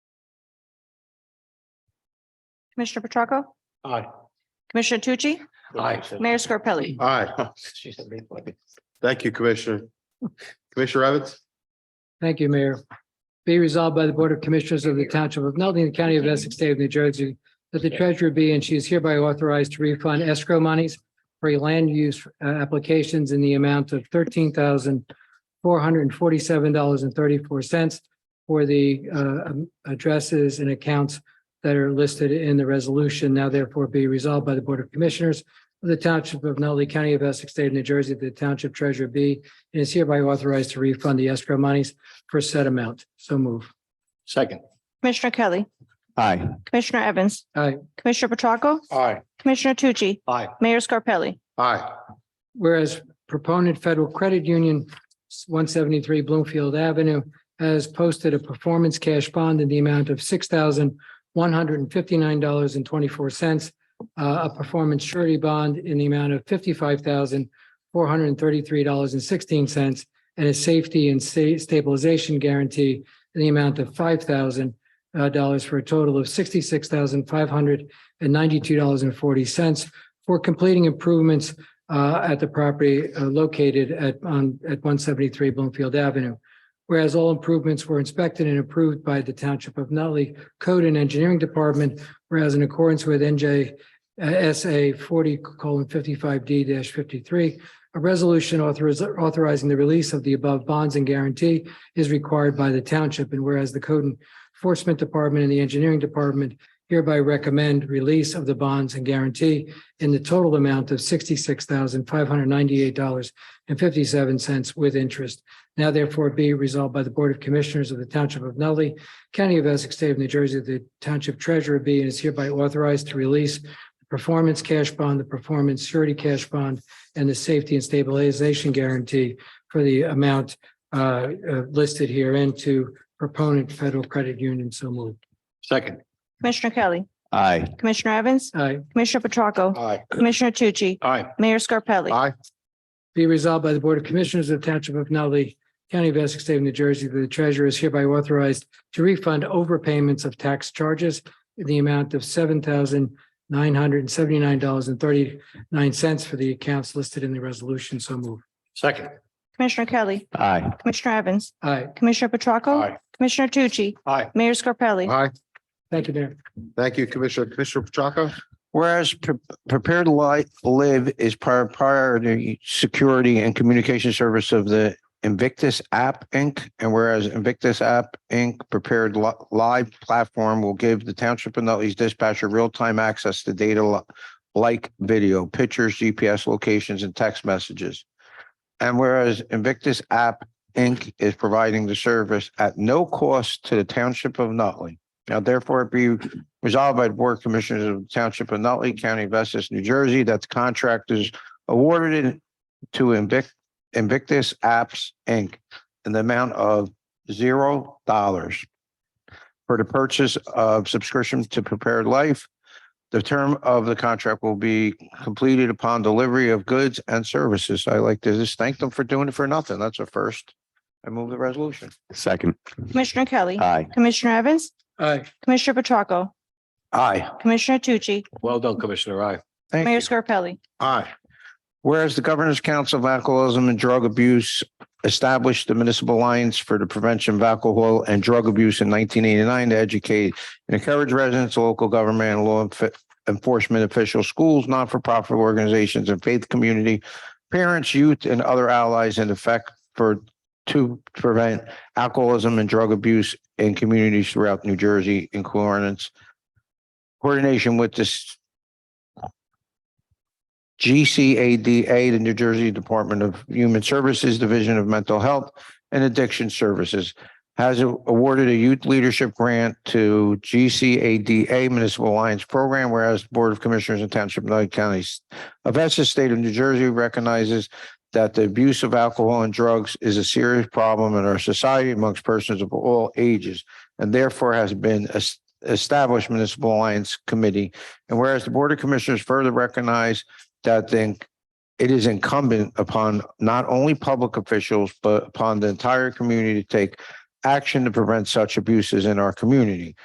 Commissioner Petracca, Aye. Commissioner Tucci, Aye. Mayor Scarpelli. Aye. Thank you, Commissioner. Commissioner Evans? Thank you, Mayor. Be resolved by the Board of Commissioners of the Township of Nutley, the County of Essex, State of New Jersey, that the treasurer be and she is hereby authorized to refund escrow monies for land use uh, applications in the amount of thirteen thousand four hundred and forty-seven dollars and thirty-four cents for the uh, um, addresses and accounts that are listed in the resolution. Now therefore be resolved by the Board of Commissioners of the Township of Nutley, County of Essex, State of New Jersey, that the Township Treasurer be and is hereby authorized to refund the escrow monies for said amount. So move. Second. Commissioner Kelly, aye, Commissioner Evans. Aye. Commissioner Petracca, Aye. Commissioner Tucci, Aye. Mayor Scarpelli. Aye. Whereas proponent Federal Credit Union, one seventy-three Bloomfield Avenue, has posted a performance cash bond in the amount of six thousand one hundred and fifty-nine dollars and twenty-four cents, uh, a performance surety bond in the amount of fifty-five thousand four hundred and thirty-three dollars and sixteen cents, and a safety and sta- stabilization guarantee in the amount of five thousand uh, dollars for a total of sixty-six thousand five hundred and ninety-two dollars and forty cents for completing improvements uh, at the property uh, located at, on, at one seventy-three Bloomfield Avenue. Whereas all improvements were inspected and approved by the Township of Nutley Code and Engineering Department, whereas in accordance with NJ uh, SA forty fifty-five D fifty-three, a resolution authoriz- authorizing the release of the above bonds and guarantee is required by the township, and whereas the Code Enforcement Department and the Engineering Department hereby recommend release of the bonds and guarantee in the total amount of sixty-six thousand five hundred ninety-eight dollars and fifty-seven cents with interest. Now therefore be resolved by the Board of Commissioners of the Township of Nutley, County of Essex, State of New Jersey, that the Township Treasurer be and is hereby authorized to release the performance cash bond, the performance surety cash bond, and the safety and stabilization guarantee for the amount uh, uh, listed herein to proponent Federal Credit Union. So moved. Second. Commissioner Kelly, aye, Commissioner Evans, Aye. Commissioner Petracca, Aye. Commissioner Tucci, Aye. Mayor Scarpelli. Aye. Be resolved by the Board of Commissioners of the Township of Nutley, County of Essex, State of New Jersey, that the treasurer is hereby authorized to refund overpayments of tax charges in the amount of seven thousand nine hundred and seventy-nine dollars and thirty-nine cents for the accounts listed in the resolution. So move. Second. Commissioner Kelly, aye, Commissioner Evans, Aye. Commissioner Petracca, Aye. Commissioner Tucci, Aye. Mayor Scarpelli. Aye. Thank you, Mayor. Thank you, Commissioner. Commissioner Petracca? Whereas pre- prepared li- live is prior priority security and communication service of the Invictus App Inc. And whereas Invictus App Inc. prepared li- live platform will give the township of Nutley's dispatcher real-time access to data li- like video, pictures, GPS locations, and text messages. And whereas Invictus App Inc. is providing the service at no cost to the township of Nutley. Now therefore it be Resolved by the Board of Commissioners of the Township of Nutley County of Essex, New Jersey, that the contract is awarded to Invic- Invictus Apps, Inc. in the amount of zero dollars for the purchase of subscription to Prepared Life. The term of the contract will be completed upon delivery of goods and services. I like to just thank them for doing it for nothing. That's a first. I move the resolution. second, Commissioner Kelly, aye. Commissioner Evans, Aye. Commissioner Petracca, Aye. Commissioner Tucci, Well done, Commissioner. Aye. Thank you. Mayor Scarpelli. Aye. Whereas the Governor's Council of Alcoholism and Drug Abuse established the Municipal Alliance for the Prevention of Alcohol and Drug Abuse in nineteen eighty-nine to educate and encourage residents, local government, and law enf- enforcement officials, schools, not-for-profit organizations, and faith community, parents, youth, and other allies in effect for to prevent alcoholism and drug abuse in communities throughout New Jersey in coordinates coordination with this GCADA, the New Jersey Department of Human Services Division of Mental Health and Addiction Services, has awarded a youth leadership grant to GCADA Municipal Alliance Program, whereas the Board of Commissioners and Township of Nutley County of Essex, State of New Jersey recognizes that the abuse of alcohol and drugs is a serious problem in our society amongst persons of all ages, and therefore has been es- established Municipal Alliance Committee. And whereas the Board of Commissioners further recognize that then it is incumbent upon not only public officials, but upon the entire community to take action to prevent such abuses in our community.